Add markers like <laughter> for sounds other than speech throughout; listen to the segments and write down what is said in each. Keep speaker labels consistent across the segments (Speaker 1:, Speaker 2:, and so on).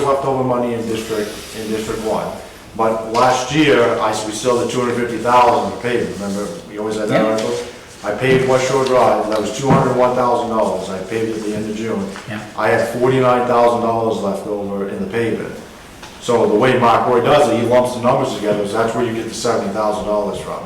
Speaker 1: leftover money in District, in District One. But last year, I, we still had two hundred fifty thousand to pay, remember, we always had that
Speaker 2: Yeah.
Speaker 1: article? I paid West Shore Drive, that was two hundred one thousand dollars, I paid it at the end of June.
Speaker 2: Yeah.
Speaker 1: I had forty-nine thousand dollars left over in the paving. So the way Mark Roy does it, he lumps the numbers together, so that's where you get the seventy thousand dollars from.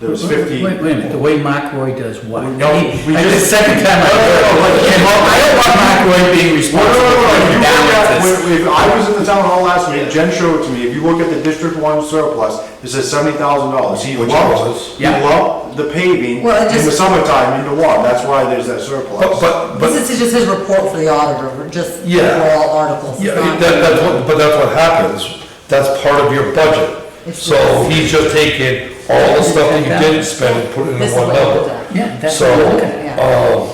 Speaker 1: There was fifty.
Speaker 2: Wait, wait a minute, the way Mark Roy does what?
Speaker 1: No,
Speaker 2: I mean,
Speaker 1: we
Speaker 2: like,
Speaker 1: just-
Speaker 2: The second time I
Speaker 1: No, no,
Speaker 2: heard
Speaker 1: no,
Speaker 2: it.
Speaker 1: no,
Speaker 2: And
Speaker 1: no.
Speaker 2: I don't want Mark Roy being
Speaker 1: No, no,
Speaker 2: responsible
Speaker 1: no, no,
Speaker 2: for
Speaker 1: if you look at-
Speaker 2: balances.
Speaker 1: when- if I was in the town hall last week, Jen showed it to me, if you look at the District One surplus, it says seventy thousand dollars. He
Speaker 3: Which
Speaker 1: lumped,
Speaker 3: was.
Speaker 1: he
Speaker 2: Yeah.
Speaker 1: lumped the paving in
Speaker 4: Well, it
Speaker 1: the
Speaker 4: just-
Speaker 1: summertime into one, that's why there's that surplus.
Speaker 3: But, but, but,
Speaker 4: This is just his report for the auditor, just for
Speaker 3: Yeah.
Speaker 4: all articles. It's
Speaker 3: yeah,
Speaker 4: not-
Speaker 3: that, that's what, but that's what happens, that's part of your budget.
Speaker 4: It's-
Speaker 3: So he's just taking all the stuff that you didn't spend and put it
Speaker 4: This
Speaker 3: in
Speaker 4: is
Speaker 3: one
Speaker 4: what he looked
Speaker 3: number.
Speaker 4: at.
Speaker 2: Yeah, that's
Speaker 3: So,
Speaker 2: what I'm looking at.
Speaker 4: at.
Speaker 3: um,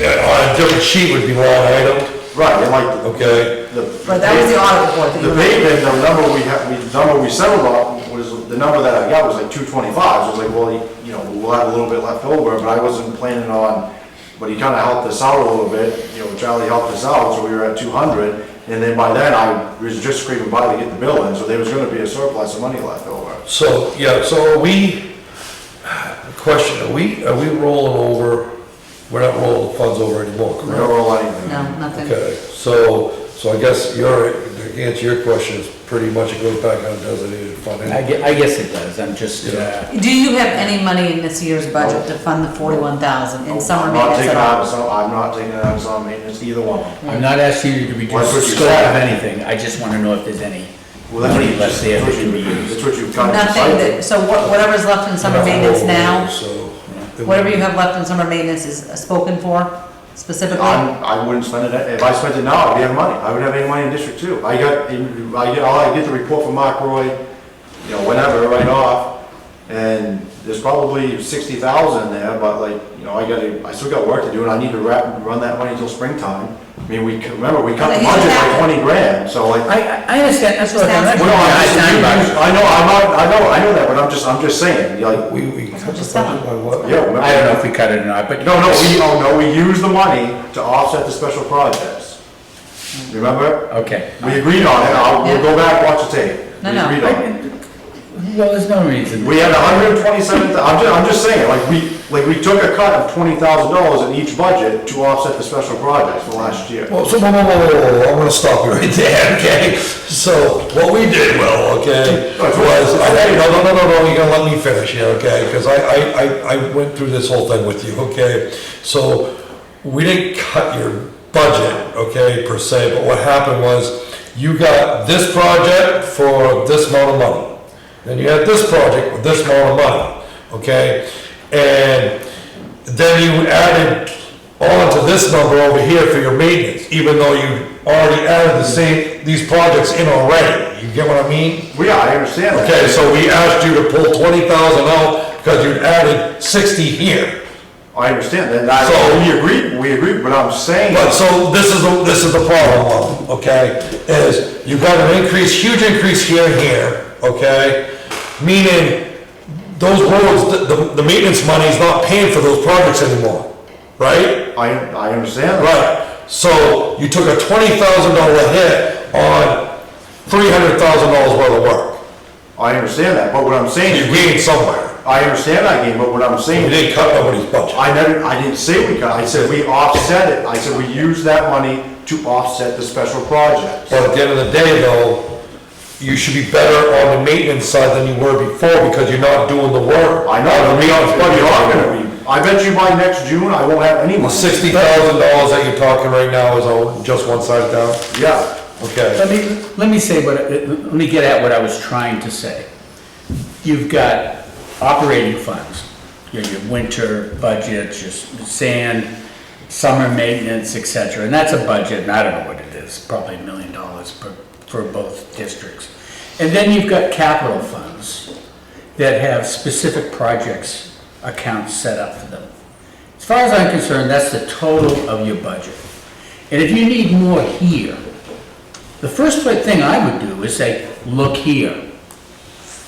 Speaker 3: yeah, on a different sheet would be one item,
Speaker 1: Right, and like. the-
Speaker 3: okay?
Speaker 1: the-
Speaker 4: But that was the audit report that you
Speaker 1: The
Speaker 4: were-
Speaker 1: paving, the number we have, we- the number we settled on was, the number that I got was like two twenty-five, so I was like, well, you know, we'll have a little bit left over, but I wasn't planning on, but he kinda helped us out a little bit, you know, Charlie helped us out, so we were at two hundred, and then by then, I was just scraping by to get the bill in, so there was gonna be a surplus of money left over.
Speaker 3: So, yeah, so are we, question, are we, are we rolling over, we're not rolling the funds over anymore,
Speaker 1: We
Speaker 3: correct?
Speaker 1: don't roll anything.
Speaker 4: No, nothing.
Speaker 3: Okay, so, so I guess your, the answer to your question is pretty much it goes back on designated fund.
Speaker 2: I
Speaker 3: anyway.
Speaker 2: guess, I guess it does, I'm just, uh,
Speaker 4: Do you have any money in this year's budget to fund the forty-one thousand in summer
Speaker 1: I'm not
Speaker 4: maintenance
Speaker 1: taking
Speaker 4: at
Speaker 1: it out
Speaker 4: all?
Speaker 1: of some, I'm not taking it out of some maintenance, either one.
Speaker 2: I'm not asking you to reduce
Speaker 1: What's
Speaker 2: the
Speaker 1: what you
Speaker 2: scope
Speaker 1: said?
Speaker 2: of anything, I just wanna know if there's any
Speaker 1: Well, that's what
Speaker 2: money
Speaker 1: you
Speaker 2: left
Speaker 1: just-
Speaker 2: there
Speaker 1: that's
Speaker 2: that
Speaker 1: what
Speaker 2: can be
Speaker 1: you-
Speaker 2: used.
Speaker 1: That's what you've kind of
Speaker 4: Nothing
Speaker 1: decided.
Speaker 4: that, so what- whatever's left in summer maintenance now,
Speaker 3: So.
Speaker 4: whatever you have left in summer maintenance is spoken for specifically?
Speaker 1: I'm, I wouldn't spend it, if I spent it now, I'd be out of money, I wouldn't have any money in District Two. I got, I get, all I get the report from Mark Roy, you know, whenever, right off, and there's probably sixty thousand there, but like, you know, I gotta, I still got work to do, and I need to wrap, run that money till springtime. I mean, we, c- remember, we cut the
Speaker 4: Well, he's
Speaker 1: budget by
Speaker 4: happy.
Speaker 1: twenty grand, so like.
Speaker 2: I, I- I understand, that's what I'm,
Speaker 4: Sounds
Speaker 2: that's
Speaker 1: Well,
Speaker 2: what
Speaker 1: no,
Speaker 2: I'm
Speaker 1: I'm just-
Speaker 2: asking about.
Speaker 1: I know, I'm not, I know, I know that, but I'm just, I'm just saying, like,
Speaker 3: We, we cut
Speaker 4: what
Speaker 3: the
Speaker 4: you said.
Speaker 3: budget by what?
Speaker 1: yeah, remember.
Speaker 2: I don't know if we cut it or not, but.
Speaker 1: No, no, we, oh, no, we use the money to offset the special projects. Remember?
Speaker 2: Okay.
Speaker 1: We agreed on it, I'll, we'll go back, watch the tape.
Speaker 4: No,
Speaker 1: We
Speaker 4: no.
Speaker 1: agreed on it.
Speaker 2: Well, there's no reason.
Speaker 1: We had hundred and twenty-seven, I'm ju, I'm just saying, like, we, like, we took a cut of twenty thousand dollars in each budget to offset the special projects for last year.
Speaker 3: Well, so, whoa, whoa, whoa, whoa, whoa, I'm gonna stop you right <laughs> there, okay? So, what we did, well, okay, was, I- hey, no, no, no, no, no, you're gonna let me finish here, okay? Cause I, I, I, I went through this whole thing with you, okay? So, we didn't cut your budget, okay, per se, but what happened was, you got this project for this amount of money. Then you had this project with this amount of money, okay? And then you added on to this number over here for your maintenance, even though you already added the same, these projects in already, you get what I mean?
Speaker 1: Well, yeah, I understand that.
Speaker 3: Okay, so we asked you to pull twenty thousand out, because you added sixty here.
Speaker 1: I understand that, I,
Speaker 3: So-
Speaker 1: we agreed, we agreed, but I'm saying,
Speaker 3: But so this is, the this is the problem, okay, is you got an increase, huge increase here and here, okay? Meaning, those roads, the- the, the maintenance money is not paying for those projects anymore, right?
Speaker 1: I, I understand that.
Speaker 3: Right, so you took a twenty thousand dollar hit on three hundred thousand dollars worth of work.
Speaker 1: I understand that, but what I'm
Speaker 3: You
Speaker 1: saying,
Speaker 3: gained somewhere.
Speaker 1: I understand that game, but what I'm saying
Speaker 3: You didn't cut nobody's budget.
Speaker 1: I never, I didn't say we cut, I said we offset it, I said we use that money to offset the special projects.
Speaker 3: But at the end of the day though, you should be better on the maintenance side than you were before because you're not doing the work.
Speaker 1: I know,
Speaker 3: On
Speaker 1: I
Speaker 3: the
Speaker 1: mean,
Speaker 3: maintenance
Speaker 1: but you're not
Speaker 3: budget.
Speaker 1: gonna be, I bet you by next June, I won't have any money.
Speaker 3: Sixty thousand dollars that you're talking right now is on just one side down?
Speaker 1: Yeah,
Speaker 3: Okay.
Speaker 2: Let me, let me say what, let me get at what I was trying to say. You've got operating funds, your, your winter budgets, your s- sand, summer maintenance, et cetera, and that's a budget, and I don't know what it is, probably a million dollars per, for both districts. And then you've got capital funds that have specific projects accounts set up for them. As far as I'm concerned, that's the total of your budget. And if you need more here, the first thing I would do is say, look here.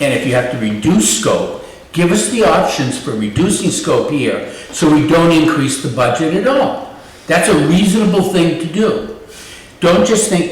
Speaker 2: And if you have to reduce scope, give us the options for reducing scope here so we don't increase the budget at all. That's a reasonable thing to do. Don't just think,